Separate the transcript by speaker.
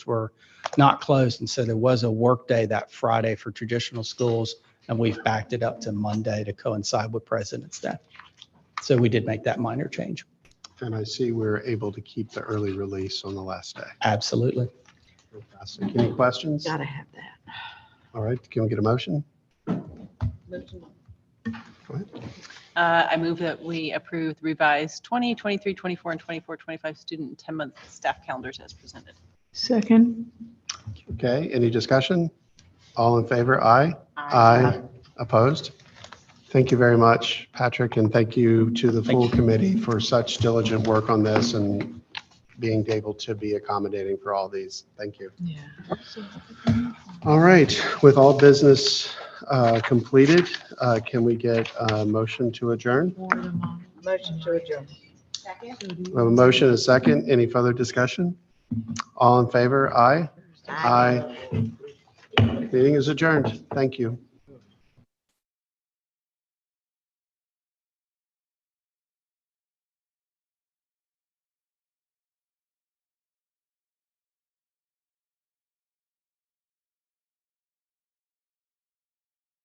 Speaker 1: were not closed. And so there was a workday that Friday for traditional schools, and we've backed it up to Monday to coincide with President's Day. So we did make that minor change.
Speaker 2: And I see we were able to keep the early release on the last day.
Speaker 1: Absolutely.
Speaker 2: Fantastic. Any questions?
Speaker 3: Gotta have that.
Speaker 2: All right, can we get a motion?
Speaker 4: Uh, I move that we approve the revised 20, 23, 24, and 24, 25 student and 10-month staff calendars as presented.
Speaker 3: Second.
Speaker 2: Okay, any discussion? All in favor, aye? Opposed? Thank you very much, Patrick, and thank you to the
Speaker 1: Thank
Speaker 2: full committee for such diligent work on this and being able to be accommodating for all these. Thank you.
Speaker 3: Yeah.
Speaker 2: All right, with all business uh, completed, uh, can we get a motion to adjourn?
Speaker 3: Motion to adjourn.
Speaker 2: We have a motion, and a second. Any further discussion? All in favor? Aye? Aye. Meeting is adjourned. Thank you.